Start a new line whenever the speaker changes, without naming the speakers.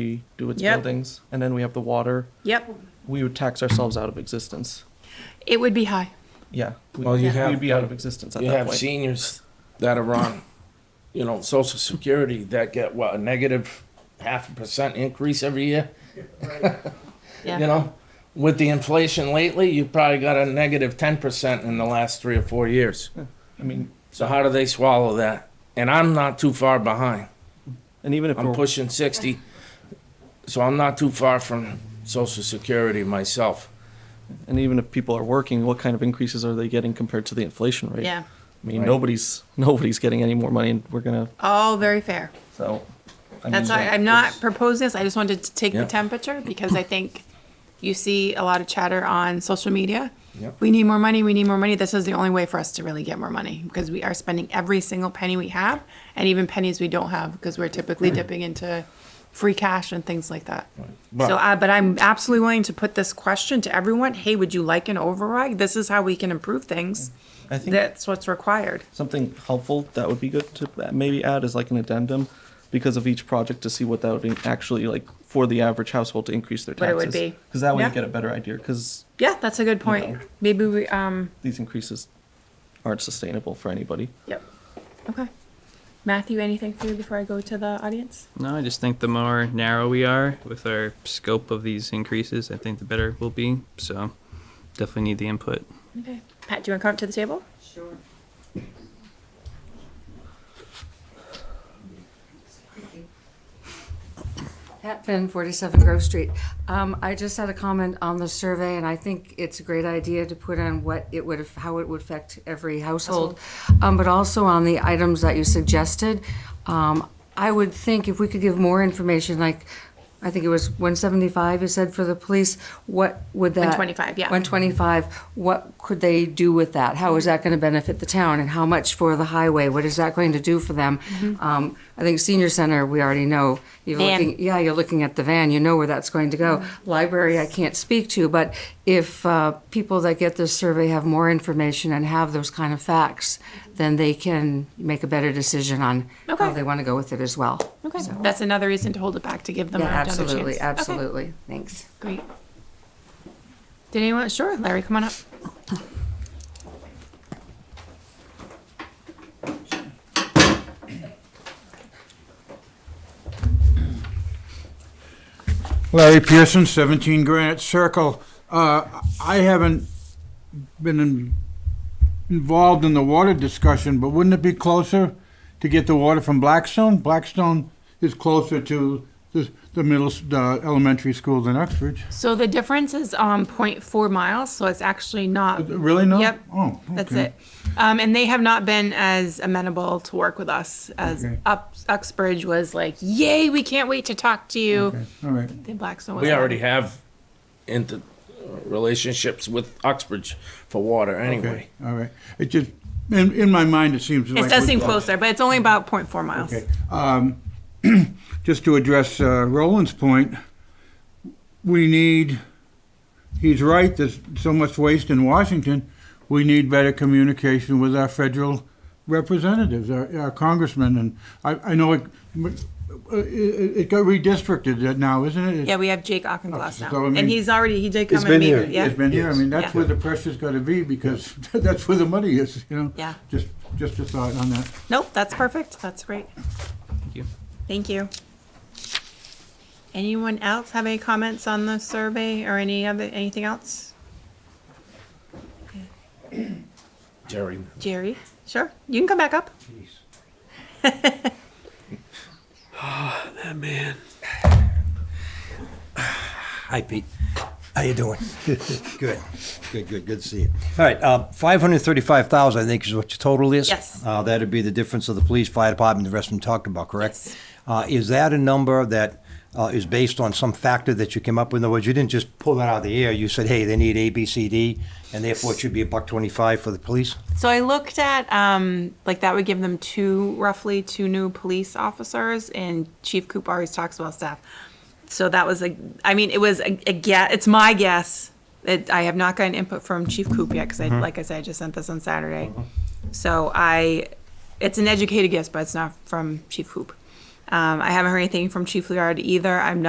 redo its
Yep.
buildings, and then we have the water,
Yep,
we would tax ourselves out of existence.
it would be high.
Yeah. we-
Well, you
We'd
have-
be out of existence at
You
that
have
point.
seniors that are on, you know, social security that get what, a negative half a percent increase every year?
Yeah.
You know, with the inflation lately, you probably got a negative ten percent in the last three or four years.
I mean,
So how do they swallow that? And I'm not too far behind.
and even if
I'm
we're,
pushing sixty, so I'm not too far from social security myself.
and even if people are working, what kind of increases are they getting compared to the inflation rate? I
Yeah,
mean,
Right.
nobody's, nobody's getting any more money, and we're gonna,
all very fair.
so. I
That's
mean,
why I'm not proposing this. I just wanted to take the
Yeah.
temperature because I think you see a lot of chatter on social media.
Yeah.
We need more money, we need more money. This is the only way for us to really get more money because we are spending every single penny we have and even pennies we don't have because we're typically dipping into free cash and things like that.
But-
so, uh, but I'm absolutely willing to put this question to everyone. Hey, would you like an override? This is how we can improve things.
I think-
That's what's required.
Something helpful that would be good to maybe add is like an addendum because of each project to see what that would be actually like for the average household to increase their
What
taxes.
it would be.
Because that way you
Yeah.
get a better idea, because
Yeah, that's a good point.
know.
Maybe we, um,
these increases aren't sustainable for anybody.
yep. Okay. Matthew, anything for you before I go to the audience?
No, I just think the more narrow we are with our scope of these increases, I think the better we'll be. So definitely need the input.
Okay. Pat, do you want to come up to the table?
Pat Finn, 47 Grove Street. Um, I just had a comment on the survey, and I think it's a great idea to put on what it would, how it would affect every household. Um, but also on the items that you suggested, um, I would think if we could give more information, like, I think it was 175, you said, for the police, what would that?
125, yeah.
125, what could they do with that? How is that going to benefit the town, and how much for the highway? What is that going to do for them? Um, I think senior center, we already know,
Mm-hmm.
you're
Van. Mm-hmm.
looking, yeah, you're looking at the van, you know where that's going to go. Library, I can't speak to, but if uh, people that get this survey have more information and have those kind of facts, then they can make a better decision on how
Mm-hmm. Okay.
they want to go with it as well.
Okay.
So-
That's another reason to hold it back to give them
Yeah,
another chance.
absolutely,
Okay,
absolutely. Thanks.
Great. Did anyone? Sure, Larry, come on up.
Larry Pearson, 17 Granite Circle. Uh, I haven't been in- involved in the water discussion, but wouldn't it be closer to get the water from Blackstone? Blackstone is closer to the the middle, s- the elementary school than Uxbridge.
So the difference is um, 0.4 miles, so it's actually not.
Really not?
Yep.
Oh,
That's
okay.
it. Um, and they have not been as amenable to work with us as
Okay.
Up, Uxbridge was like, yay, we can't wait to talk to you.
Okay, All right.
The Blackstone was
We
like,
already have inter relationships with Uxbridge for water anyway.
Okay, all right. It just, in, in my mind, it seems like.
It does
we're
seem
close.
closer, but it's only about 0.4 miles.
Okay. um, Just to address uh, Roland's point, we need, he's right, there's so much waste in Washington. We need better communication with our federal representatives, our our congressmen, and I, I know it, uh, it it got redistricted now, isn't it?
Yeah, we have Jake Auchincloss
so,
now,
I mean-
and he's already he did come
It's
and
been
meet.
here.
Yeah,
It's been here, I mean,
Yes.
that's where the pressure's gotta be, because that's where the money is, you know?
Yeah.
Just, just a thought on that.
nope, that's perfect. That's great.
Thank you.
Thank you. Anyone else have any comments on the survey or any other anything else?
Jerry,
Jerry, sure, you can come back up.
Hi, Pete. How you doing? Good, good, good, good to see you. All right, uh, 535,000, I think is what your total is?
Yes.
Uh, That'd be the difference of the police, fire department, the rest of them talked about, correct? Uh, Is that a number that uh, is based on some factor that you came up with? In other words, you didn't just pull that out of the air, you said, hey, they need A, B, C, D, and therefore it should be a buck 25 for the police?
So I looked at um, like that would give them two roughly two new police officers, and Chief Coop always talks about staff. So that was a, I mean, it was a, a guess. It's my guess. It, I have not gotten input from Chief Coop yet because, I like I said, I just sent this on Saturday. So I, it's an educated guess, but it's not from Chief Coop. Um, I haven't heard anything from Chief Liard either. I'm not.